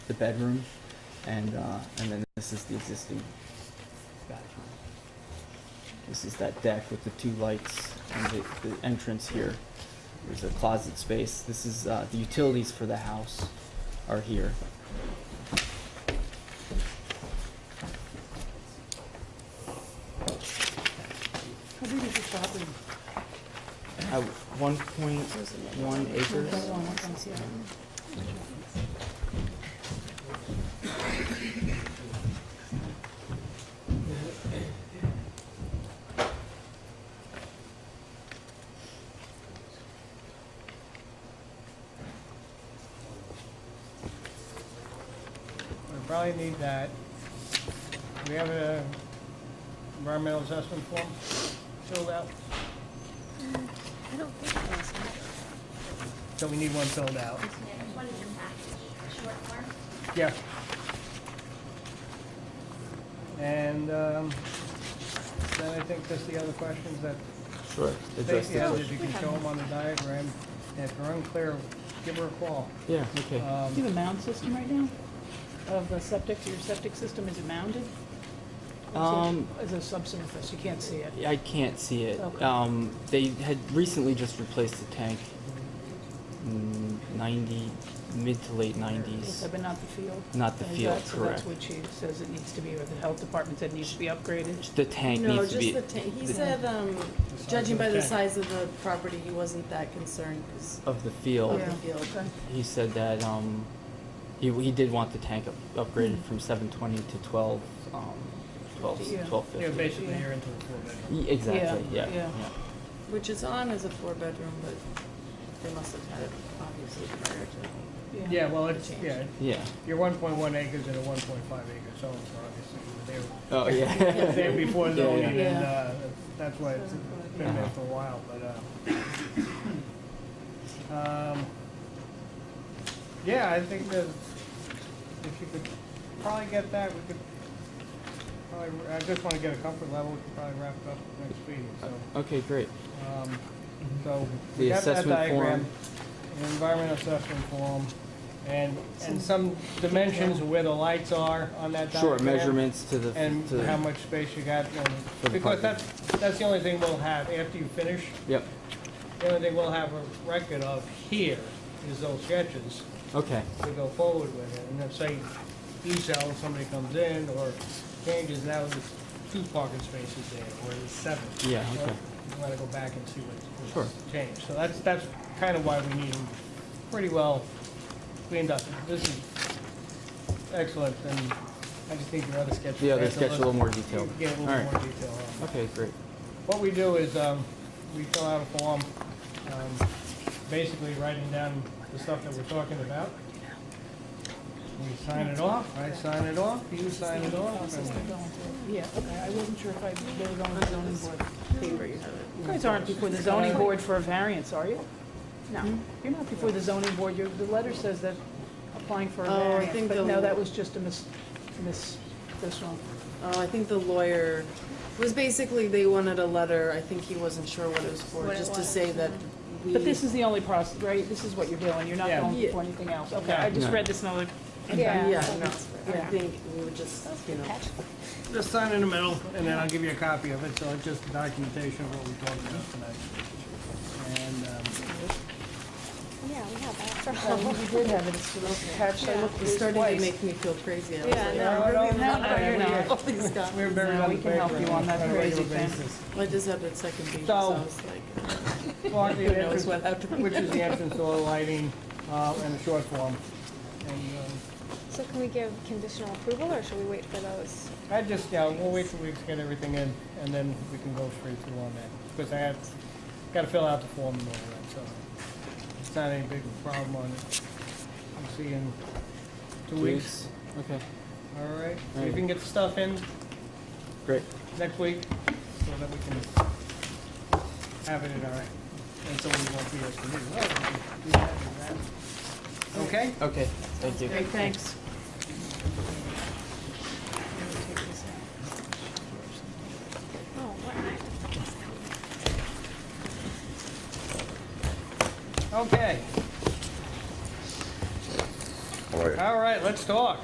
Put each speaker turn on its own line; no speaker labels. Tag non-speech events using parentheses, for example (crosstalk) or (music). the bedroom, and, uh, and then this is the existing bathroom. This is that deck with the two lights and the, the entrance here. There's a closet space. This is, uh, the utilities for the house are here.
How big is the property?
At one point, one acres.
That one, I can see it.
We probably need that. We have a environmental assessment form filled out,
Mm, I don't think so.
so we need one filled out.
Yeah, there's one in your package, short form.
Yeah. And um, then I think that's the other questions that
Sure.
Stacy has, if you can show them on the diagram. And if they're unclear, give her a call.
Yeah, okay.
Um,
Do you have a mound system right now? Of the septic, your septic system, is it mounded?
Um,
Is it subsurface, you can't see it?
I can't see it.
Okay.
Um, they had recently just replaced the tank. mm, Ninety, mid to late nineties.
Yes, but not the field?
Not the
Is
field,
that- So that's
correct.
what she says it needs to be, or the health department said needs to be upgraded?
The tank
No,
needs to be.
just the tank. He said, um, judging by the size of the property, he wasn't that concerned 'cause
Of the field.
of the field.
Okay.
He said that, um, he, he did want the tank up,
Mm-hmm.
upgraded from seven twenty to twelve, um, twelve,
Yeah.
twelve
Yeah,
fifty.
basically, you're into the four-bedroom.
Y- Exactly, yeah,
Yeah, yeah.
yeah.
Which is on as a four-bedroom, but they must have had it obviously prior to.
Yeah, well, it's,
Change.
yeah,
Yeah,
you're 1.1 acres and a 1.5 acre zone, so obviously, they were
oh, yeah.
(laughs) there before zoning,
Yeah,
and
yeah.
uh, that's why it's been there for a while, but, uh, um, yeah, I think that if you could probably get that, we could probably, I just want to get a comfort level, we could probably wrap it up next meeting, so,
Okay, great.
um, so
The
we got that
assessment form.
diagram, an environmental assessment form, and, and some dimensions of where the lights are on that diagram
Sure, measurements to the,
and
to the.
how much space you got, and-
For the
because
parking.
that's, that's the only thing we'll have, after you finish,
Yep,
the only thing we'll have a record of here is those sketches
okay,
to go forward with it, and then say, you sell, somebody comes in, or changes, now there's two parking spaces there, or there's seven.
Yeah,
So
okay.
You wanna go back and see what-
Sure.
what's changed, so that's, that's kind of why we need them pretty well cleaned up, this is excellent, and I just need your other sketch.
The other
Take
sketch a
look.
little more detailed.
Yeah, a little
All
more
right.
detail on it.
okay, great.
What we do is, um, we fill out a form, um, basically writing down the stuff that we're talking about. We sign it off, I sign it off, you sign it off,
Process they're
and
going through. Yeah, okay, I wasn't sure if I really going to the zoning board.
Paper, you have it.
You guys aren't before the zoning board for a variance, are you? No, you're not before the zoning board, your, the letter says that applying for a
Oh, I
variance,
think
but
the-
no, that was just a mis, mis, this one.
Oh, I think the lawyer was basically, they wanted a letter. I think he wasn't sure what it was for,
What it
just to
was.
say that we.
But this is the only process, right, this is what you're doing, you're not
Yeah.
going
Yeah.
for anything else, okay, I just
No.
read this and I was like.
Yeah.
Yeah, no, I
Yeah.
think we would just, you know.
just sign in the middle, and then I'll give you a copy of it, so it's just documentation of what we talked about tonight. And, um,
Yeah, we have that.
Oh, We did have it, it's attached, I looked at
It's
this
starting to
twice.
make me feel crazy. I was
Yeah,
like,
no,
"Oh,
no,
we're
no,
not-
no, you're
(laughs)
not.
all these guys."
We're buried
No,
on
we
the
can help
paper
you on that
a regular
crazy thing.
basis.
(laughs)
I just had that second page, so
So-
I was like,
Well, the
who knows what
entrance,
happened.
which is the entrance door lighting, uh, and the short form. And, um,
So can we give conditional approval, or should we wait for those?
I just, yeah, we'll wait till we get everything in, and then we can go straight through on that. Because I have, gotta fill out the form and all that, so it's not any big problem on it. We'll see you in two weeks,
Okay,
all right? If you can get the stuff in
great.
next week, so that we can have it in our, and so we won't be as confused. Oh, we can do that and that. Okay?
Okay, thank you.
Great, thanks.
Oh, what?
Okay.
All right.
All right. right, let's talk.